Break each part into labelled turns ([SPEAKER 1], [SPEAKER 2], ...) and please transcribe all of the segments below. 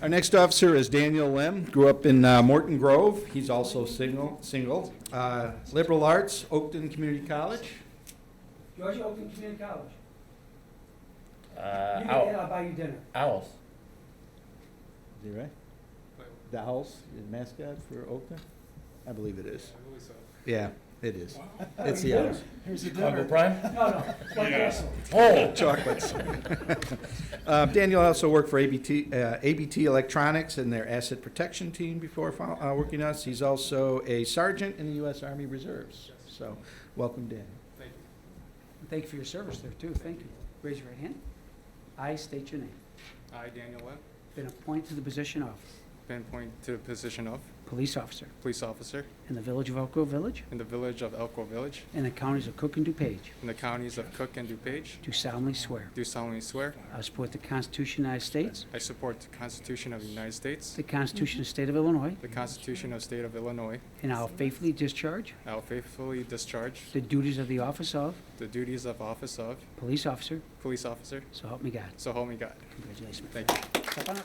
[SPEAKER 1] Our next officer is Daniel Lim, grew up in uh, Morton Grove. He's also single, single. Uh, Liberal arts, Oakton Community College.
[SPEAKER 2] Georgia Open Community College.
[SPEAKER 3] Uh,
[SPEAKER 2] You get in,
[SPEAKER 3] owl,
[SPEAKER 2] I'll buy you dinner.
[SPEAKER 3] owls.
[SPEAKER 1] Is that right? The house, the mascot for Oakton? I believe it is. Yeah, it is. It's the house.
[SPEAKER 3] Chicago Prime.
[SPEAKER 2] No, no, White Castle.
[SPEAKER 3] Oh,
[SPEAKER 1] Chocolates. Uh, Daniel also worked for ABT, uh, ABT Electronics and their asset protection team before fo- uh, working us. He's also a sergeant in the U.S. Army Reserves. So, welcome, Daniel.
[SPEAKER 2] And Thank you for your service there, too. Thank you. Raise your right hand. I state your name.
[SPEAKER 4] I, Daniel Webb,
[SPEAKER 2] Been appointed to the position of
[SPEAKER 4] been appointed to the position of
[SPEAKER 2] police officer
[SPEAKER 4] police officer
[SPEAKER 2] in the village of Elk Grove Village
[SPEAKER 4] in the village of Elk Grove Village
[SPEAKER 2] and the counties of Cook and DuPage.
[SPEAKER 4] in the counties of Cook and DuPage.
[SPEAKER 2] Do solemnly swear.
[SPEAKER 4] Do solemnly swear
[SPEAKER 2] I support the Constitution of the United States,
[SPEAKER 4] I support the Constitution of the United States,
[SPEAKER 2] the Constitution of the State of Illinois,
[SPEAKER 4] the Constitution of the State of Illinois.
[SPEAKER 2] and I will faithfully discharge
[SPEAKER 4] I will faithfully discharge
[SPEAKER 2] the duties of the office of
[SPEAKER 4] the duties of office of
[SPEAKER 2] police officer.
[SPEAKER 4] police officer.
[SPEAKER 2] So help me God.
[SPEAKER 4] So help me God.
[SPEAKER 2] Congratulations.
[SPEAKER 4] Thank you.
[SPEAKER 2] Step on up.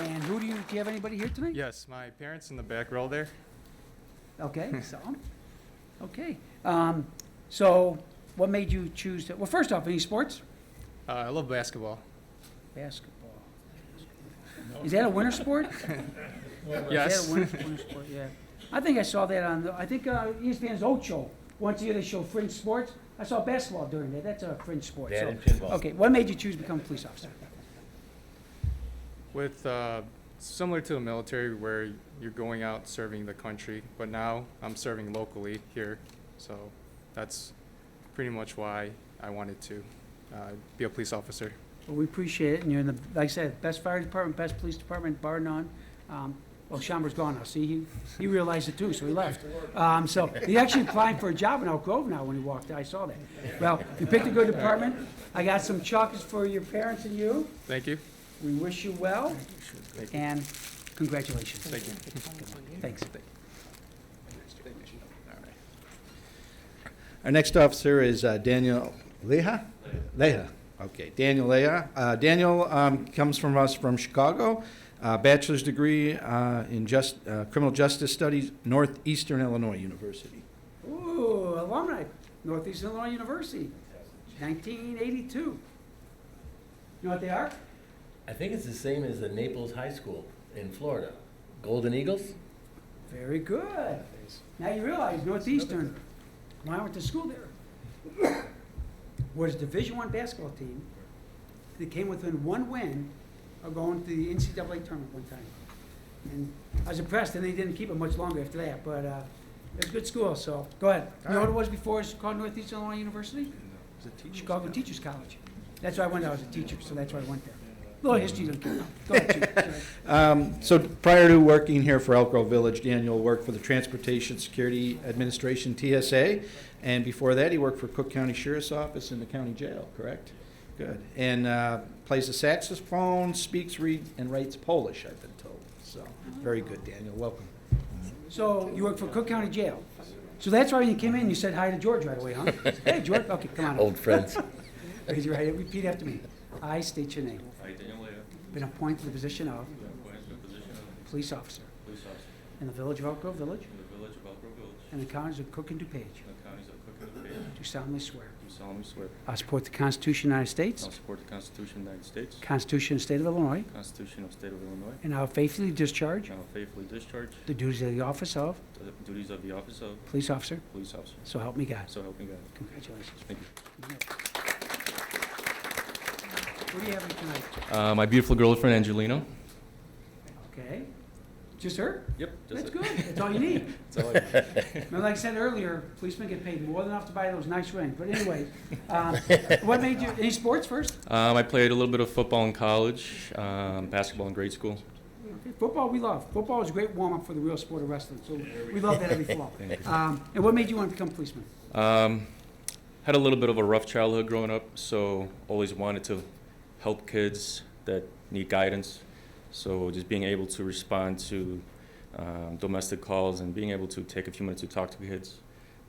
[SPEAKER 2] And who do you, do you have anybody here tonight?
[SPEAKER 4] Yes, my parents in the back row there.
[SPEAKER 2] Okay, so, okay. Um, So what made you choose to, well, first off, any sports?
[SPEAKER 4] Uh, I love basketball.
[SPEAKER 2] Basketball. Is that a winter sport? Is
[SPEAKER 4] Yes.
[SPEAKER 2] that a winter, winter sport, yeah. I think I saw that on, the I think uh, ESPN's old show. Once a year they show fringe sports. I saw basketball during that. That's a fringe sport,
[SPEAKER 3] that
[SPEAKER 2] so.
[SPEAKER 3] and pinball.
[SPEAKER 2] Okay, what made you choose to become a police officer?
[SPEAKER 4] With uh, similar to the military, where you're going out serving the country, but now I'm serving locally here, so that's pretty much why I wanted to uh, be a police officer.
[SPEAKER 2] Well, we appreciate it, and you're in the, like I said, best fire department, best police department, bar none. Um, Well, Schaumburg's gone now, see, he, he realized it too, so he left. Um, so, he actually applied for a job in Elk Grove now when he walked, I saw that. Well, you picked a good department, I got some chocolates for your parents and you,
[SPEAKER 4] Thank you.
[SPEAKER 2] we wish you well,
[SPEAKER 4] Thank you.
[SPEAKER 2] and congratulations.
[SPEAKER 4] Thank you.
[SPEAKER 2] Thanks.
[SPEAKER 1] Our next officer is uh, Daniel Leha? Leha, okay, Daniel Leha. Uh, Daniel um, comes from us from Chicago, uh, bachelor's degree uh, in just, uh, criminal justice studies, Northeastern Illinois University.
[SPEAKER 2] Ooh, alumni, Northeast Illinois University, nineteen eighty-two. You know what they are?
[SPEAKER 3] I think it's the same as the Naples High School in Florida. Golden Eagles?
[SPEAKER 2] Very good. Now you realize Northeastern, when I went to school there, was a Division One basketball team that came within one win of going to the NCAA tournament one time. And I was impressed, and they didn't keep it much longer after that, but uh, it was a good school, so, go ahead. You know what it was before, it's called Northeastern Illinois University? Chicago Teachers College. That's why I went, there. I was a teacher, so that's why I went there. Little history doesn't count. Go ahead, Chief. Sorry.
[SPEAKER 1] Um, So prior to working here for Elk Grove Village, Daniel worked for the Transportation Security Administration, TSA, and before that, he worked for Cook County Sheriff's Office in the county jail, correct? Good. And uh, plays the saxophone, speaks, reads, and writes Polish, I've been told, so, very good, Daniel, welcome.
[SPEAKER 2] So you work for Cook County Jail. So that's why when you came in, you said hi to George right away, huh? Hey, George, okay, come on up.
[SPEAKER 3] Old friends.
[SPEAKER 2] Raise your right hand, repeat after me. I state your name.
[SPEAKER 5] I, Daniel Leah,
[SPEAKER 2] Been appointed to the position of
[SPEAKER 5] been appointed to the position of
[SPEAKER 2] police officer
[SPEAKER 5] police officer
[SPEAKER 2] in the village of Elk Grove Village
[SPEAKER 5] in the village of Elk Grove Village,
[SPEAKER 2] and the counties of Cook and DuPage.
[SPEAKER 5] in the counties of Cook and DuPage,
[SPEAKER 2] Do solemnly swear.
[SPEAKER 5] do solemnly swear.
[SPEAKER 2] I support the Constitution of the United
[SPEAKER 5] I'll
[SPEAKER 2] States,
[SPEAKER 5] support the Constitution of the United States,
[SPEAKER 2] Constitution of the State of Illinois,
[SPEAKER 5] Constitution of the State of Illinois,
[SPEAKER 2] and I will faithfully discharge
[SPEAKER 5] and I will faithfully discharge
[SPEAKER 2] the duties of the office of
[SPEAKER 5] the duties of the office of
[SPEAKER 2] police officer.
[SPEAKER 5] police officer.
[SPEAKER 2] So help me God.
[SPEAKER 5] So help me God.
[SPEAKER 2] Congratulations.
[SPEAKER 5] Thank you.
[SPEAKER 2] What do you have tonight?
[SPEAKER 5] Uh, my beautiful girlfriend Angelina.
[SPEAKER 2] Okay. Just her?
[SPEAKER 5] Yep.
[SPEAKER 2] That's good. That's all you need.
[SPEAKER 5] good.
[SPEAKER 2] Now, like I said earlier, policemen get paid more than enough to buy those nice rings. But anyway, um, what made you, any sports first?
[SPEAKER 5] Um, I played a little bit of football in college, um, basketball in grade school.
[SPEAKER 2] Okay, Football, we love. Football is a great warm-up for the real sport of wrestling, so we love that every fall. Um, And what made you want to become a policeman?
[SPEAKER 5] Um, had a little bit of a rough childhood growing up, so always wanted to help kids that need guidance. So just being able to respond to um, domestic calls and being able to take a few minutes to talk to kids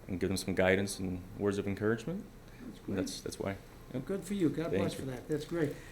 [SPEAKER 5] and give them some guidance and words of encouragement.
[SPEAKER 2] That's great.
[SPEAKER 5] That's that's why.
[SPEAKER 2] Good for you. God
[SPEAKER 5] Thank
[SPEAKER 2] bless
[SPEAKER 5] you.
[SPEAKER 2] for that. That's great.